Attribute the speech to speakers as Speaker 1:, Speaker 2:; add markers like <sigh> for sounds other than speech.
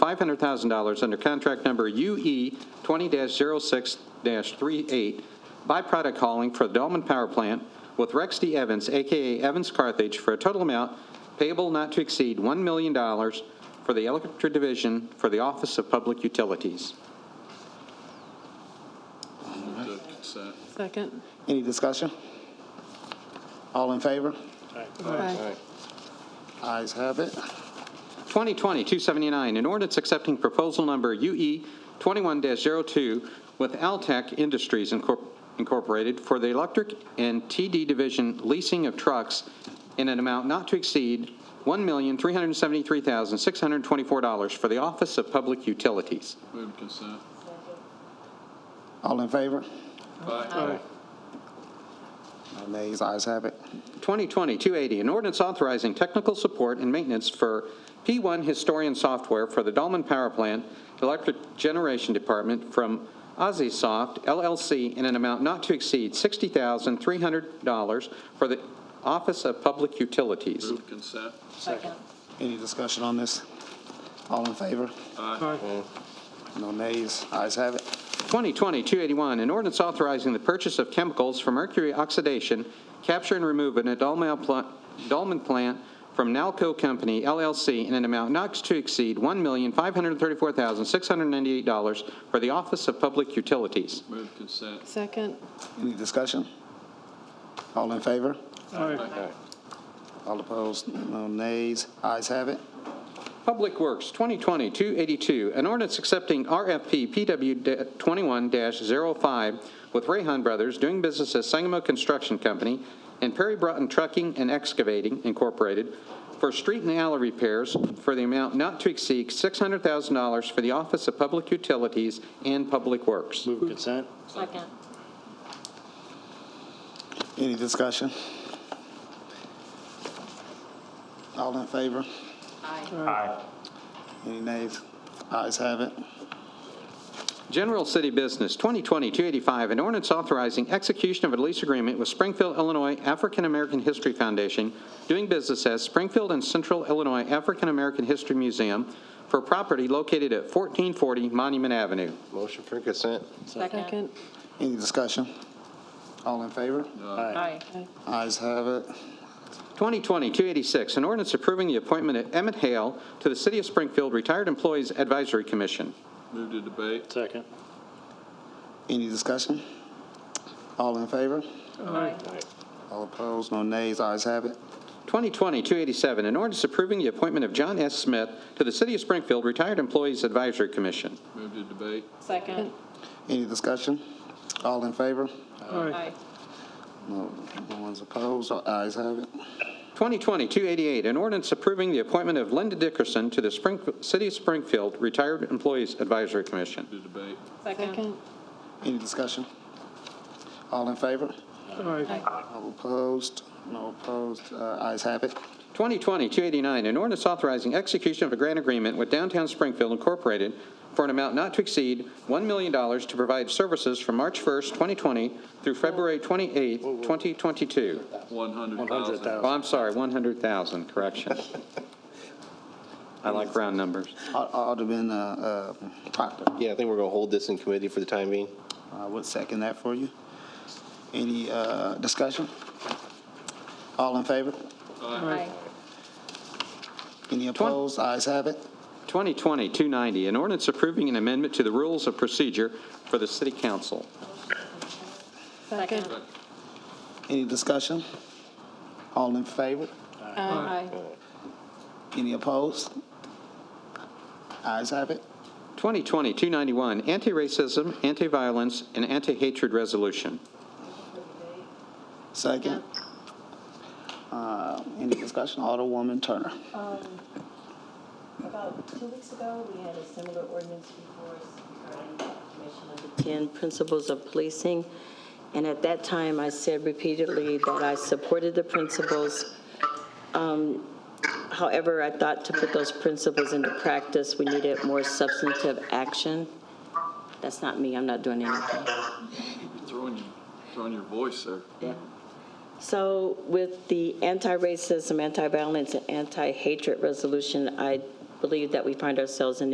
Speaker 1: $500,000 under contract number E UE 20-06-38, byproduct hauling for the Dolman Power Plant with Rex D. Evans, AKA Evans Carthage, for a total amount payable not to exceed $1 million for the Electric Division for the Office of Public Utilities.
Speaker 2: Move to consent.
Speaker 3: Second.
Speaker 4: Any discussion? All in favor?
Speaker 3: Aye.
Speaker 4: Ayes have it.
Speaker 1: 2020-279, an ordinance accepting proposal number E UE 21-02 with Altech Industries Incor- Incorporated for the electric and TD division leasing of trucks in an amount not to exceed $1,373,624 for the Office of Public Utilities.
Speaker 2: Move to consent.
Speaker 4: All in favor?
Speaker 2: Aye.
Speaker 4: No nays, ayes have it.
Speaker 1: 2020-280, an ordinance authorizing technical support and maintenance for P1 Historian Software for the Dolman Power Plant Electric Generation Department from Ozysoft LLC in an amount not to exceed $60,300 for the Office of Public Utilities.
Speaker 2: Move to consent.
Speaker 4: Any discussion on this? All in favor? No nays, ayes have it.
Speaker 1: 2020-281, an ordinance authorizing the purchase of chemicals for mercury oxidation, capture and remove in a Dolman pl- Dolman plant from Nalco Company LLC in an amount not to exceed $1,534,698 for the Office of Public Utilities.
Speaker 2: Move to consent.
Speaker 3: Second.
Speaker 4: Any discussion? All in favor?
Speaker 2: Aye.
Speaker 4: All opposed? No nays, ayes have it.
Speaker 1: Public Works, 2020-282, an ordinance accepting RFP PW21-05 with Rayhan Brothers, doing business as Sangamo Construction Company and Perry Broughton Trucking and Excavating Incorporated for street and alley repairs for the amount not to exceed $600,000 for the Office of Public Utilities and Public Works.
Speaker 5: Move consent.
Speaker 6: Second.
Speaker 4: Any discussion? All in favor?
Speaker 6: Aye.
Speaker 4: Any nays? Ayes have it.
Speaker 1: General City Business, 2020-285, an ordinance authorizing execution of a lease agreement with Springfield, Illinois African American History Foundation, doing business as Springfield and Central Illinois African American History Museum for property located at 1440 Monument Avenue.
Speaker 7: Motion for consent.
Speaker 3: Second.
Speaker 4: Any discussion? All in favor?
Speaker 6: Aye.
Speaker 4: Ayes have it.
Speaker 1: 2020-286, an ordinance approving the appointment of Emmett Hale to the City of Springfield Retired Employees Advisory Commission.
Speaker 2: Move to debate.
Speaker 5: Second.
Speaker 4: Any discussion? All in favor?
Speaker 6: Aye.
Speaker 4: All opposed? No nays, ayes have it.
Speaker 1: 2020-287, an ordinance approving the appointment of John S. Smith to the City of Springfield Retired Employees Advisory Commission.
Speaker 2: Move to debate.
Speaker 6: Second.
Speaker 4: Any discussion? All in favor?
Speaker 6: Aye.
Speaker 4: No, no one's opposed, so ayes have it.
Speaker 1: 2020-288, an ordinance approving the appointment of Linda Dickerson to the Spring- City of Springfield Retired Employees Advisory Commission.
Speaker 2: Move to debate.
Speaker 6: Second.
Speaker 3: Second.
Speaker 4: Any discussion? All in favor?
Speaker 6: Aye.
Speaker 4: All opposed? No opposed, uh, ayes have it.
Speaker 1: 2020-289, an ordinance authorizing execution of a grant agreement with Downtown Springfield Incorporated for an amount not to exceed $1 million to provide services from March 1st, 2020 through February 28th, 2022.
Speaker 2: One hundred thousand.
Speaker 5: 100,000.
Speaker 1: Oh, I'm sorry, 100,000, correction. <laughs> I like round numbers.
Speaker 4: Al- Alderman, uh, uh, Proctor,
Speaker 7: Yeah, I think we're going to hold this in committee for the time being.
Speaker 4: I would Uh, second that for you. Any, uh, discussion? All in favor?
Speaker 6: Aye.
Speaker 4: Any opposed? Ayes have it.
Speaker 1: 2020-290, an ordinance approving an amendment to the rules of procedure for the city council.
Speaker 3: Second.
Speaker 4: Any discussion? All in favor?
Speaker 6: Aye.
Speaker 4: Any opposed? Ayes have it.
Speaker 1: 2020-291, anti-racism, anti-violence, and anti-hatred resolution.
Speaker 4: Second. Uh, Any discussion? Alderwoman Turner.
Speaker 8: About two weeks ago, we had a similar ordinance before us regarding commission of the 10 principles of policing. And at that time, I said repeatedly that I supported the principles. Um, However, I thought to put those principles into practice, we needed more substantive action. That's not me, I'm not doing anything.
Speaker 2: Throwing, your- throwing your voice there.
Speaker 8: So with the anti-racism, anti-violence, and anti-hatred resolution, I believe that we find ourselves in